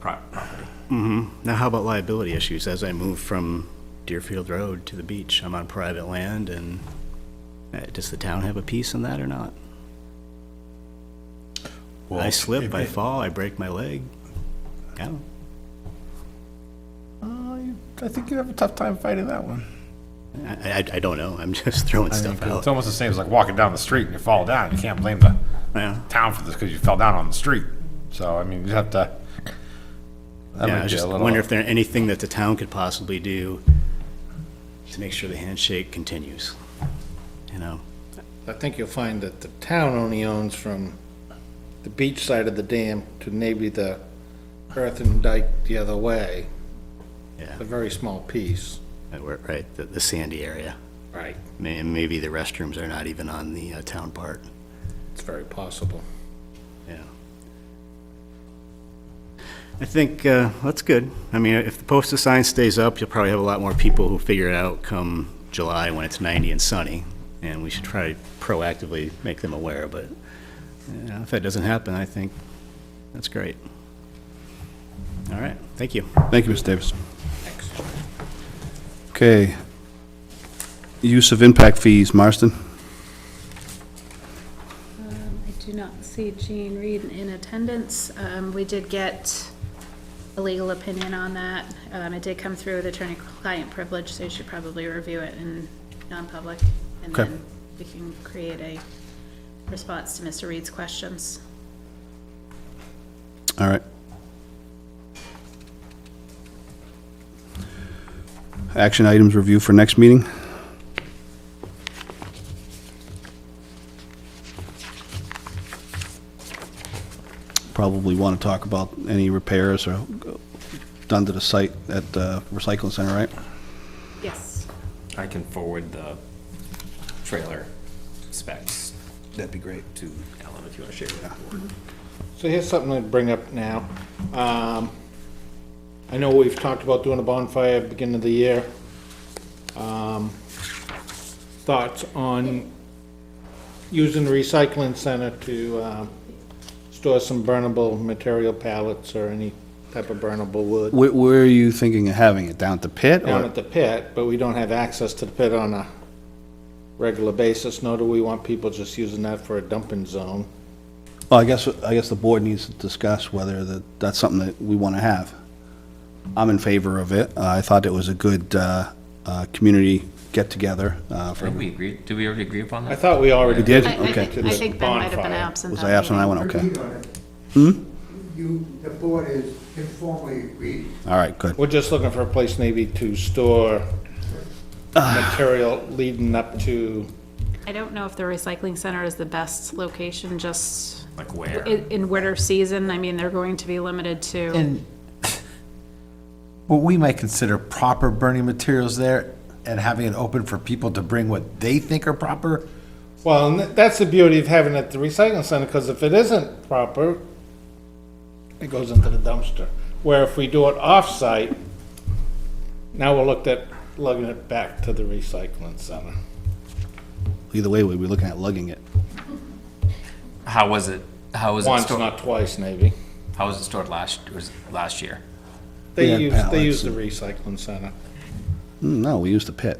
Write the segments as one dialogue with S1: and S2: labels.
S1: pro- property.
S2: Now, how about liability issues? As I move from Deerfield Road to the beach, I'm on private land, and uh, does the town have a piece in that or not? I slip, I fall, I break my leg. I don't-
S3: I think you have a tough time fighting that one.
S2: I, I, I don't know, I'm just throwing stuff
S4: it's
S2: out.
S4: almost the same as like walking down the street and you fall down. You can't blame the
S2: Yeah.
S4: town for this because you fell down on the street. So, I mean, you have to. That
S2: Yeah,
S4: might
S2: I
S4: be
S2: just
S4: a little-
S2: wonder if there anything that the town could possibly do to make sure the handshake continues, you know?
S5: I think you'll find that the town only owns from the beach side of the dam to maybe the earthen dike the other way.
S2: Yeah.
S5: A very small piece.
S2: that we're- Right, the, the sandy area.
S5: Right.
S2: May- And maybe the restrooms are not even on the uh, town part,
S5: It's very possible.
S2: yeah. I think, uh, that's good. I mean, if the posted sign stays up, you'll probably have a lot more people who figure it out come July when it's 90 and sunny, and we should try proactively make them aware, but, you know, if that doesn't happen, I think that's great. All right, thank you.
S6: Thank you, Ms. Davis. Okay. Use of impact fees, Marston?
S7: I do not see Jean Reed in attendance. Um, We did get a legal opinion on that. Um, It did come through with attorney-client privilege, so you should probably review it in non-public. And
S6: Okay.
S7: then we can create a response to Mr. Reed's questions.
S6: All right. Action items review for next meeting? Probably want to talk about any repairs or done to the site at the recycling center, right?
S7: Yes.
S1: I can forward the trailer specs. That'd be great. To Ellen, if you want to share with the board.
S5: So here's something I'd bring up now. Um, I know we've talked about doing a bonfire at the beginning of the year. Um, Thoughts on using the recycling center to um, store some burnable material pallets or any type of burnable wood
S6: Where, where are you thinking of having it? Down at the pit?
S5: down
S6: or-
S5: at the pit, but we don't have access to the pit on a regular basis, nor do we want people just using that for a dumping zone.
S6: Well, I guess, I guess the board needs to discuss whether that, that's something that we want to have. I'm in favor of it. Uh, I thought it was a good, uh, uh, community get-together, uh,
S1: I
S6: for,
S1: think we agreed, did we already agree upon
S5: I
S1: that?
S5: thought we already.
S6: You did?
S7: I- I
S6: Okay.
S7: think- I think Ben might have been
S5: Bonfire.
S7: absent.
S6: was
S7: that
S6: I absent on
S7: meeting.
S6: that one? Okay. Hmm?
S8: agreed on it. uh, You, the board is informally agreed.
S6: All right, good.
S5: We're just looking for a place maybe to store
S4: Ah.
S5: material leading up to,
S7: I don't know if the recycling center is the best location, just
S1: Like where?
S7: in in winter season. I mean, they're going to be limited to.
S9: And what we might consider proper burning materials there and having it open for people to bring what they think are proper.
S5: well, and tha- that's the beauty of having it at the recycling center, because if it isn't proper, it goes into the dumpster. Where if we do it off-site, now we're looked at lugging it back to the recycling center.
S6: Either way, we'd be looking at lugging it.
S1: How was it, how was it
S5: Once,
S1: stored,
S5: not twice, maybe.
S1: how was it stored last, was it last year?
S5: They
S6: had
S5: use, they
S6: pallets
S5: use the recycling center.
S6: Hmm, No, we used the pit.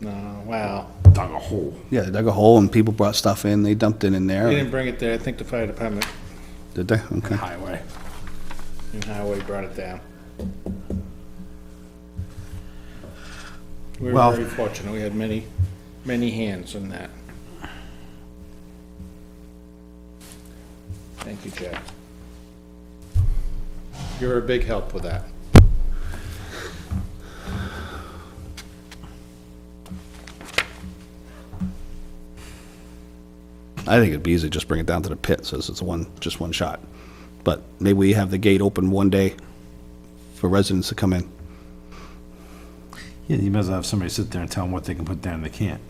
S5: No, wow.
S4: Dug a hole.
S6: Yeah, they dug a hole and people brought stuff in, they dumped it in
S5: They
S6: there.
S5: didn't bring it there. I think the fire department
S6: Did they? Okay.
S4: Highway.
S5: and highway brought it down. We
S9: Well-
S5: were very fortunate. We had many, many hands in that. Thank you, Jack. You were a big help with that.
S6: I think it'd be easy to just bring it down to the pit, so it's a one, just one shot. But maybe we have the gate open one day for residents to come in.
S9: Yeah, you might as well have somebody sit there and tell them what they can put down and they can't.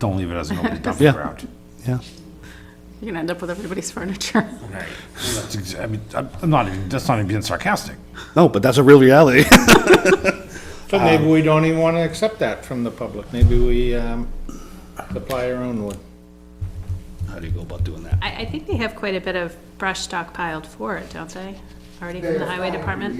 S9: Don't leave it as an open
S6: Yeah.
S9: dumping ground.
S6: Yeah.
S7: You're gonna end up with everybody's furniture.
S1: Right.
S9: That's exa- I mean, I'm I'm not even, that's not even being sarcastic.
S6: No, but that's a real reality.
S5: So maybe
S2: Um,
S5: we don't even want to accept that from the public. Maybe we um, supply our own wood.
S6: How do you go about doing that?
S7: I, I think they have quite a bit of brush stockpiled for it, don't they? already from the highway department?